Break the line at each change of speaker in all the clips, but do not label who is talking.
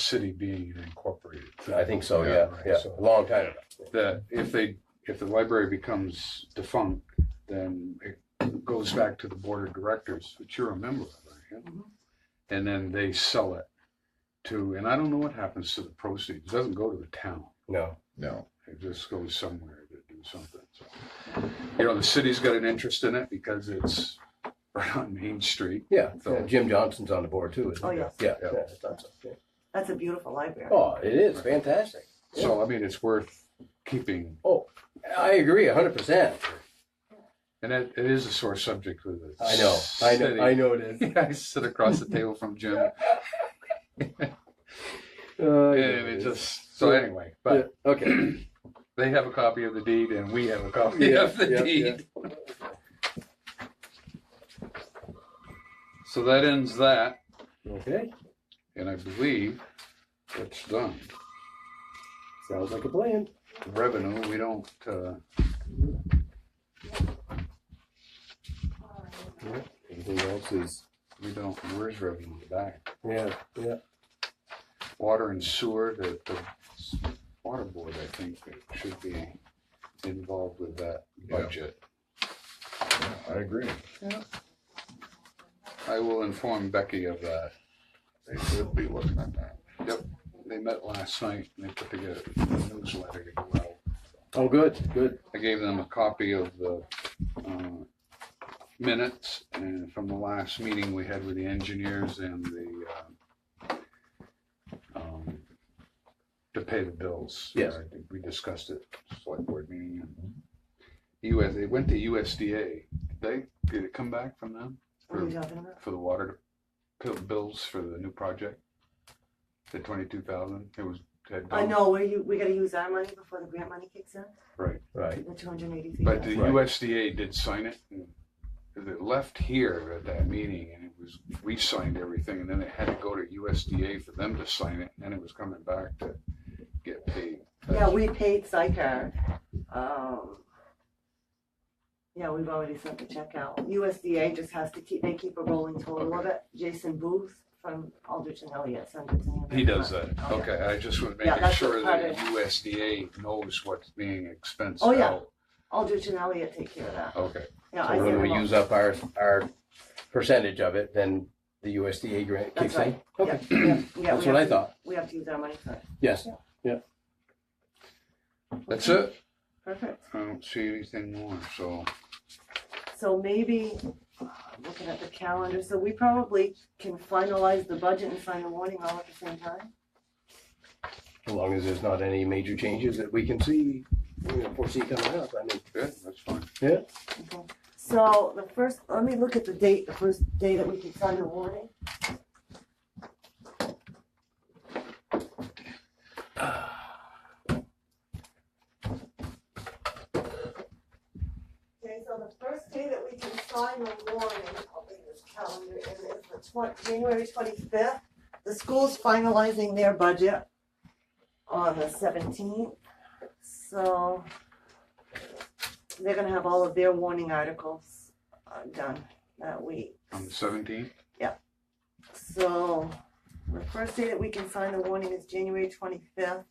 city being incorporated.
I think so,
Yeah,
yeah,
right,
yeah,
so-
a long time ago.
That if they, if the library becomes defunct, then it goes back to the board of directors, which you're a member of, aren't you? And then they sell it to, and I don't know what happens to the proceeds. It doesn't go to the town.
No,
No,
It just goes somewhere to do something. So, you know, the city's got an interest in it because it's right on Main Street.
yeah,
So-
yeah, Jim Johnson's on the board too, isn't
Oh,
he?
yes.
Yeah,
Yeah.
yeah, it's not so- yeah.
That's a beautiful library.
Oh, it is fantastic.
So, I mean, it's worth keeping.
Oh, I agree a hundred percent.
And it, it is a sore subject with it.
I know, I know, I know it is.
Yeah, I sit across the table from Jim.
Uh, I
And
know it
it
is.
just, so anyway,
Yeah,
but
Okay.
they have a copy of the deed and we have a copy
Yeah,
of the
yeah,
deed. So that ends that,
Okay,
and I believe it's done.
sounds like a plan.
Revenue, we don't, uh,
Everything else is,
we don't, where's revenue back?
yeah, yeah.
Water and sewer, the, the water board, I think, should be involved with that
Yeah.
budget.
I agree.
I will inform Becky of that.
They should be looking at that.
They met last night and they put together a newsletter to go out.
Oh, good, good.
I gave them a copy of the uh, minutes and from the last meeting we had with the engineers and the uh, um, to pay the bills.
Yes.
I think We discussed it, select board meeting. US, they went to USDA. Did they, did it come back from them?
What are you talking about?
for the water bill- bills for the new project? The twenty-two thousand, it was. had
I
gone-
Um,
know, we, you- we gotta use our money before the grant money kicks in,
Right,
Right.
the two hundred eighty three.
but the
Right.
USDA did sign it, and it left here at that meeting, and it was, we signed everything, and then it had to go to USDA for them to sign it, and then it was coming back to get paid.
Yeah, we paid Sycar, um. Yeah, we've already sent the check out, USDA just has to keep, they keep a rolling total of it, Jason Booth from Aldrich and Elliott sent it to me.
He does that,
Oh, yeah.
okay, I just was
Yeah,
making
that's
sure
part
that
of-
USDA knows what's being expensed
Oh, yeah.
out.
Aldrich and Elliott take care of that,
Okay,
yeah, I
So
sent
when we
them all.
use up our, our percentage of it, then the USDA grant kicks
That's
in.
right.
Okay,
Yeah, yeah, yeah,
that's
we
what I
have to-
thought.
We have to use our money first,
Yes.
that's it,
perfect.
I don't see anything more, so.
So maybe, uh, looking at the calendar, so we probably can finalize the budget and sign the warning all at the same time?
As long as there's not any major changes that we can see, you know, foresee coming up. I mean,
Good, that's fine.
Okay. So the first, let me look at the date, the first day that we can sign the warning. Okay, so the first day that we can sign the warning, I'll bring this calendar in, is the twen- January twenty-fifth. The school's finalizing their budget on the seventeenth, so they're gonna have all of their warning articles uh, done that week.
On the seventeenth?
So the first day that we can sign the warning is January twenty-fifth.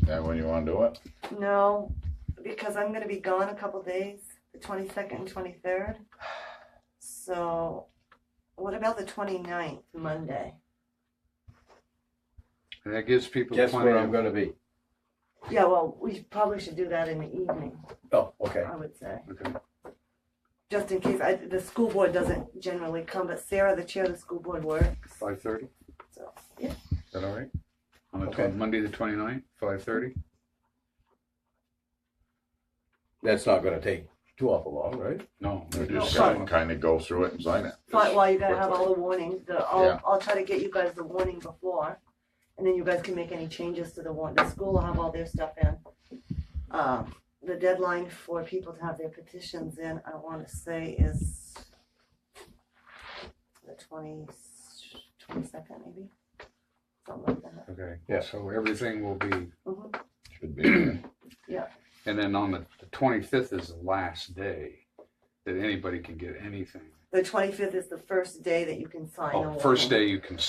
That when you wanna do it?
No, because I'm gonna be gone a couple days, the twenty-second and twenty-third. So what about the 29th, Monday?
And that gives people
guess
plenty
where I'm
of,
gonna be?
Yeah, well, we probably should do that in the evening,
Oh, okay.
I would say.
okay,
Just in case, I, the school board doesn't generally come, but Sarah, the chair of the school board, works.
five thirty?
So, yeah.
Is that all right? On the,
Okay.
twen- Monday the twenty-ninth, five thirty?
That's not gonna take too awful long, right?
No,
We
they're
just
just,
No,
gotta
signing.
kinda go through it and sign it.
But well, you gotta have
Quickly.
all the warnings, the, I'll,
Yeah.
I'll try to get you guys the warning before, and then you guys can make any changes to the warning, the school will have all their stuff in. Um, the deadline for people to have their petitions in, I wanna say is the twenty, twenty-second maybe, something like that.
okay,
Yeah.
so everything will be,
Mhm.
Should be,
and then on the twenty-fifth is the last day that anybody can get anything.
The twenty-fifth is the first day that you can sign a
Oh,
warrant.
first day you can